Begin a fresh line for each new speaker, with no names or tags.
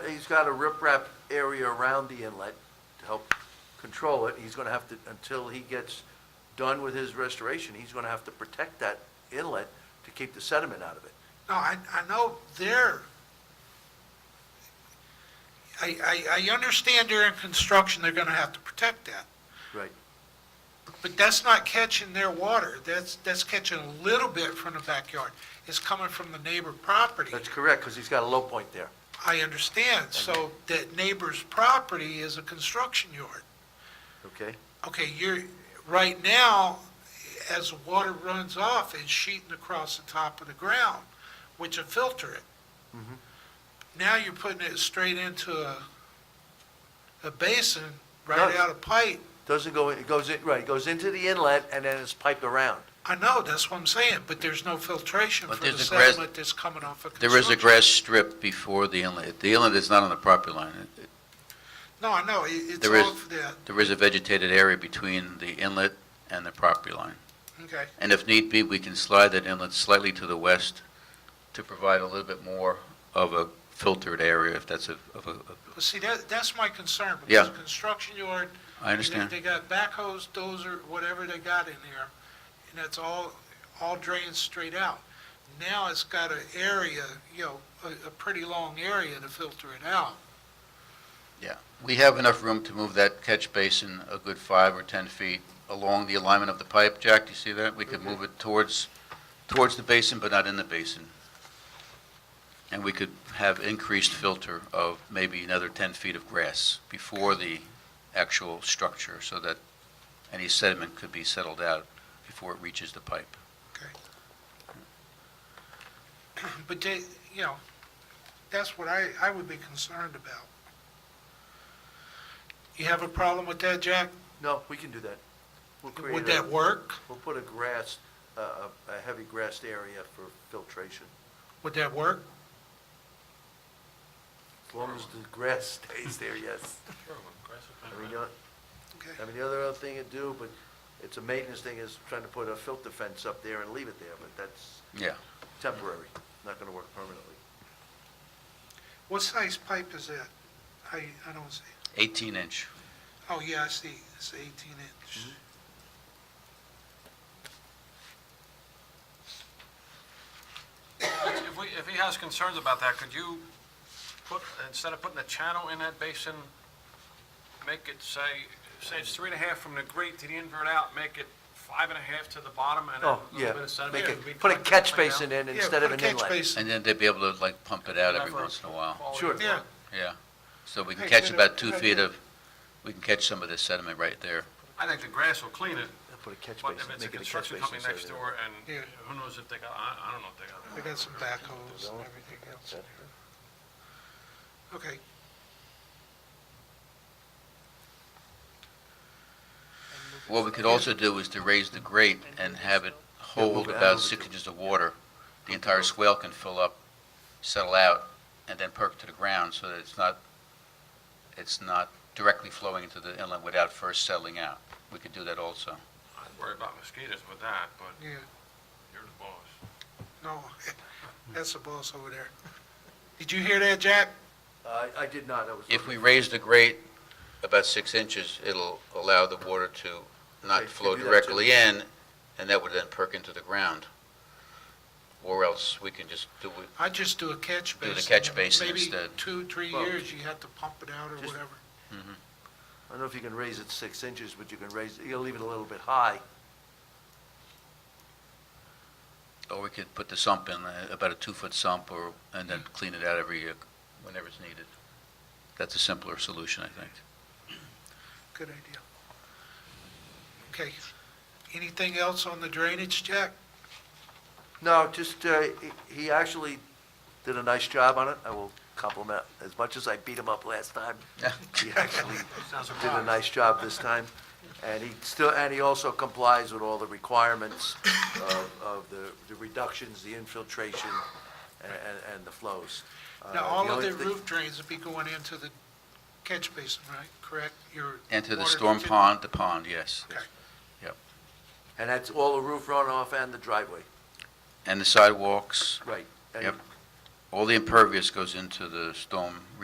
got a riprap area around the inlet to help control it. He's gonna have to, until he gets done with his restoration, he's gonna have to protect that inlet to keep the sediment out of it.
No, I, I know they're, I, I, I understand during construction, they're gonna have to protect that.
Right.
But that's not catching their water, that's, that's catching a little bit from the backyard. It's coming from the neighbor property.
That's correct, because he's got a low point there.
I understand, so that neighbor's property is a construction yard.
Okay?
Okay, you're, right now, as the water runs off, it's sheeting across the top of the ground, which will filter it.
Mm-hmm.
Mhm.
Now you're putting it straight into a, a basin, right
Does.
out of pipe.
Doesn't go, in- it goes, in right, it goes into the inlet and then it's piped around.
I know, that's what I'm saying, but there's no filtration
But
for the
there's a grass-
sediment that's coming off of
There is a
construction.
grass strip before the inlet. The inlet is not on the property line. It- it-
No, I know, it- it's
There is-
all for that,
There is a vegetated area between the inlet and the property line.
okay.
And if need be, we can slide that inlet slightly to the west to provide a little bit more of a filtered area, if that's a, of a, of-
Well, see, that, that's my concern, because
Yeah.
construction yard,
I understand.
They they got backhoes, dozer, whatever they got in there, and it's all, all drained straight out. Now it's got an area, you know, a, a pretty long area to filter it out.
We have enough room to move that catch basin a good five or 10 feet along the alignment of the pipe. Jack, do you see that? We could move it towards, towards the basin, but not in the basin. And we could have increased filter of maybe another 10 feet of grass before the actual structure, so that any sediment could be settled out before it reaches the pipe.
But they, you know, that's what I, I would be concerned about. You have a problem with that, Jack?
No, we can do that. We'll create
Would
a,
that work?
we'll put a grass, a, a- a heavy grassed area for filtration,
Would that work?
as long as the grass stays there, yes. I mean, you know,
Okay.
I mean, the other thing to do, but it's a maintenance thing, is trying to put a filter fence up there and leave it there, but that's
Yeah.
temporary, not gonna work permanently.
What size pipe is that? I, I don't see.
18-inch.
Oh, yeah, I see, it's eighteen inch.
If we, if he has concerns about that, could you put, instead of putting a channel in that basin, make it say, say it's three and a half from the grate to the invert out, make it five and a half to the bottom and
Oh,
a
yeah,
little bit of sediment?
make
It'd be
it, put a
collected
catch
like that.
basin in
Yeah,
instead of
put
an
a catch
inlet.
basin.
And then they'd be able to, like, pump it out every
Whatever.
once in a while.
Quality
Sure.
of
Yeah.
water.
Yeah, so we can
Hey,
catch
good
about
idea.
two
uh,
Good
feet
idea.
of, we can catch some of this sediment right there.
I think the grass will clean it,
Put a catch
but
basin,
if it's a
make it a catch
construction
basin.
company
instead of
next
an
door and
Yeah.
who knows if they got, I, I don't know if they got.
They got some backhoes and everything else. in
inlet.
there. Okay,
What we could also do is to raise the grate and have it hold
move it
about
over
six
to-
inches of water. The entire swale can fill up, settle out, and then perk to the ground, so that it's not, it's not directly flowing into the inlet without first settling out. We could do that also.
I'd worry about mosquitoes with that, but
yeah,
you're the boss.
no, that's the boss over there. Did you hear that, Jack?
Uh, I did not, I was.
If we raise the grate about six inches, it'll allow the water to
Okay,
not
you
flow
do that too.
directly in, and that would then perk into the ground. Or else we can just do it,
I'd just do a catch
Do
basin.
the catch basin
Maybe
instead.
two, three
Well,
years, you have to pump it out or
just-
whatever.
I don't know if you can raise it six inches, but you can raise, you'll leave it a little bit high.
or we could put the sump in, uh, about a two-foot sump, or, and then clean it out every, uh, whenever it's needed. That's a simpler solution, I think.
Good idea. Okay, anything else on the drainage, Jack?
No, just, uh, he- he actually did a nice job on it, I will compliment, as much as I beat him up last time, he actually
Sounds a
did a
problem.
nice job this time. And he still, and he also complies with all the requirements of, of the, the reductions, the infiltration, and, and- and the flows. Uh,
Now, all of
only
the
thing-
roof drains would be going into the catch basin, right, correct? Your
Enter the
water
storm
continu-
pond, the pond, yes.
Okay.
And that's all the roof runoff and the driveway,
And the sidewalks,
right. And
Yep. all the impervious goes into the storm